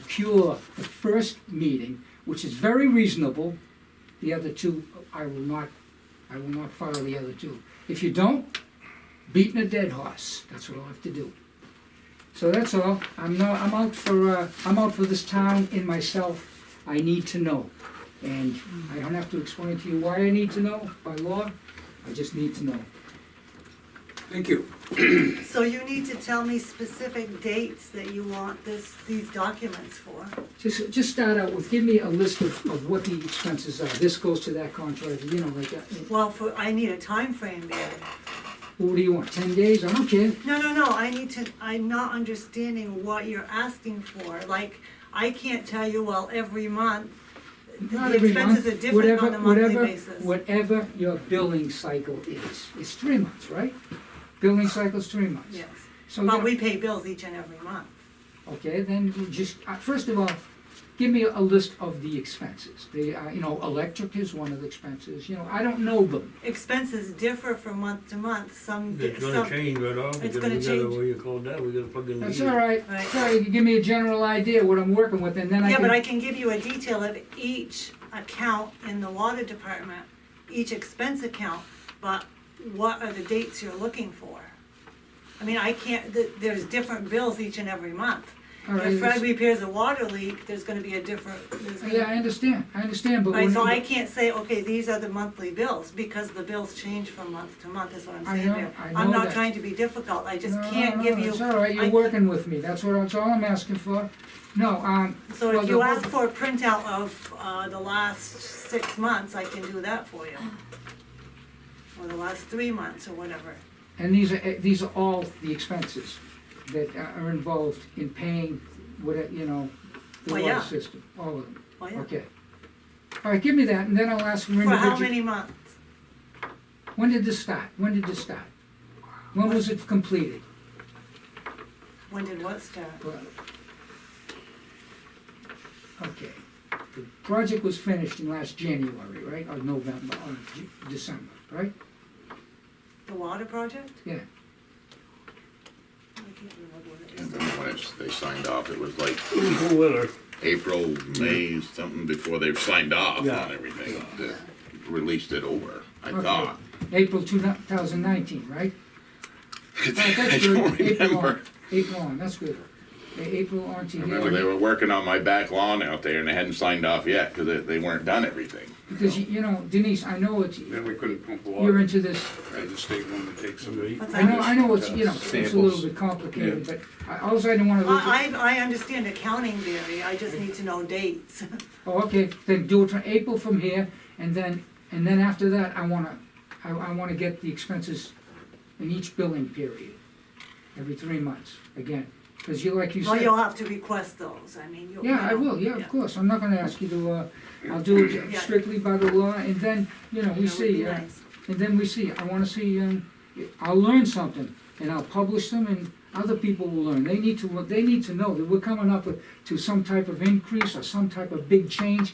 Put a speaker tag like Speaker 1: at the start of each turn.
Speaker 1: cure the first meeting, which is very reasonable. The other two, I will not, I will not follow the other two. If you don't, beating a dead horse, that's what I'll have to do. So that's all, I'm not, I'm out for, uh, I'm out for this town and myself, I need to know. And I don't have to explain to you why I need to know by law, I just need to know.
Speaker 2: Thank you.
Speaker 3: So you need to tell me specific dates that you want this, these documents for.
Speaker 1: Just, just start out with, give me a list of, of what the expenses are, this goes to that contract, you know, like, that.
Speaker 3: Well, for, I need a time frame there.
Speaker 1: what do you want, ten days, I don't care.
Speaker 3: No, no, no, I need to, I'm not understanding what you're asking for. Like, I can't tell you, well, every month,
Speaker 1: Not
Speaker 3: the
Speaker 1: every month,
Speaker 3: expenses are different on a monthly
Speaker 1: whatever,
Speaker 3: basis.
Speaker 1: Whatever, whatever your billing cycle is, it's three months, right? Billing cycle's three months.
Speaker 3: Yes,
Speaker 1: So,
Speaker 3: but
Speaker 1: Oh, yeah,
Speaker 3: we pay bills each and every month.
Speaker 1: okay, then you just, uh, first of all, give me a list of the expenses. The, uh, you know, electric is one of the expenses, you know, I don't know them.
Speaker 3: Expenses differ from month to month, some,
Speaker 4: It's gonna
Speaker 3: Um, some,
Speaker 4: change right off,
Speaker 3: It's
Speaker 4: because we
Speaker 3: gonna
Speaker 4: gotta,
Speaker 3: change.
Speaker 4: what do you call that, we gotta plug in the
Speaker 1: That's
Speaker 4: heat.
Speaker 1: all right,
Speaker 3: Right.
Speaker 1: sorry, you give me a general idea what I'm working with, and then I
Speaker 3: yeah,
Speaker 1: can.
Speaker 3: but I can give you a detail of each account in the water department, each expense account, but what are the dates you're looking for? I mean, I can't, th- there's different bills each and every month.
Speaker 1: All right,
Speaker 3: If Fred
Speaker 1: it's-
Speaker 3: repairs a water leak, there's gonna be a different, there's
Speaker 1: Yeah, I
Speaker 3: gonna.
Speaker 1: understand, I understand, but.
Speaker 3: Right,
Speaker 1: when-
Speaker 3: so I can't say, okay, these are the monthly bills, because the bills change from month to month, is what I'm
Speaker 1: I
Speaker 3: saying
Speaker 1: know-
Speaker 3: there.
Speaker 1: I
Speaker 3: am
Speaker 1: know
Speaker 3: not
Speaker 1: that.
Speaker 3: trying to be difficult, I just
Speaker 1: No, no,
Speaker 3: can't
Speaker 1: no,
Speaker 3: give you.
Speaker 1: It's all right,
Speaker 3: I-
Speaker 1: you're working with me, that's what, that's all I'm asking for. No, um,
Speaker 3: So
Speaker 1: Well,
Speaker 3: if you
Speaker 1: the-
Speaker 3: ask for a printout of uh, the last six months, I can do that for you. Or the last three months or whatever.
Speaker 1: and these are, eh, these are all the expenses that are involved in paying, what, eh, you know, the
Speaker 3: Well,
Speaker 1: water
Speaker 3: yeah.
Speaker 1: system, all of them,
Speaker 3: Well, yeah.
Speaker 1: okay. All right, give me that, and then I'll ask for
Speaker 3: For how
Speaker 1: individual.
Speaker 3: many months?
Speaker 1: When did this start? When did this start? When was it completed?
Speaker 3: When did what start?
Speaker 1: Well, Okay, the project was finished in last January, right, or November, or Ju- December, right?
Speaker 3: The water project?
Speaker 1: Yeah.
Speaker 3: I can't remember what it
Speaker 5: And
Speaker 3: is.
Speaker 5: then when it's, they signed off, it was like
Speaker 4: Cool weather.
Speaker 5: April, May, something before they've signed off on
Speaker 4: Yeah.
Speaker 5: everything. They Released it over, I
Speaker 1: Okay.
Speaker 5: thought.
Speaker 1: April two thousand nineteen, right? Alright,
Speaker 5: I
Speaker 1: that's good.
Speaker 5: don't
Speaker 1: April on,
Speaker 5: remember.
Speaker 1: April on, that's good. A- April on
Speaker 5: I remember they
Speaker 1: TV,
Speaker 5: were working on my back lawn out there and they hadn't signed off yet because they, they weren't done everything.
Speaker 1: because, you- you know, Denise, I know it's,
Speaker 6: Then we couldn't pump
Speaker 1: you're
Speaker 6: water,
Speaker 1: into this,
Speaker 6: and the state wanted to take some.
Speaker 3: What's
Speaker 1: I know,
Speaker 3: that?
Speaker 1: I know it's, you know, it's a little bit complicated, but I, also I don't wanna look at.
Speaker 3: I, I, I understand accounting theory, I just need to know dates.
Speaker 1: Oh, okay, then do it from April from here, and then, and then after that, I wanna, I, I wanna get the expenses in each billing period, every three months, again, cause you, like you
Speaker 3: Well,
Speaker 1: said.
Speaker 3: you'll have to request those, I mean, you'll.
Speaker 1: Yeah, I
Speaker 3: you know,
Speaker 1: will, yeah, of course, I'm not gonna ask you to, uh, I'll do it
Speaker 3: Yeah.
Speaker 1: strictly by the law, and then, you know,
Speaker 3: That
Speaker 1: we
Speaker 3: would be
Speaker 1: see, uh,
Speaker 3: nice.
Speaker 1: and then we see, I wanna see, um, I'll learn something, and I'll publish them, and other people will learn, they need to, they need to know that we're coming up with, to some type of increase or some type of big change,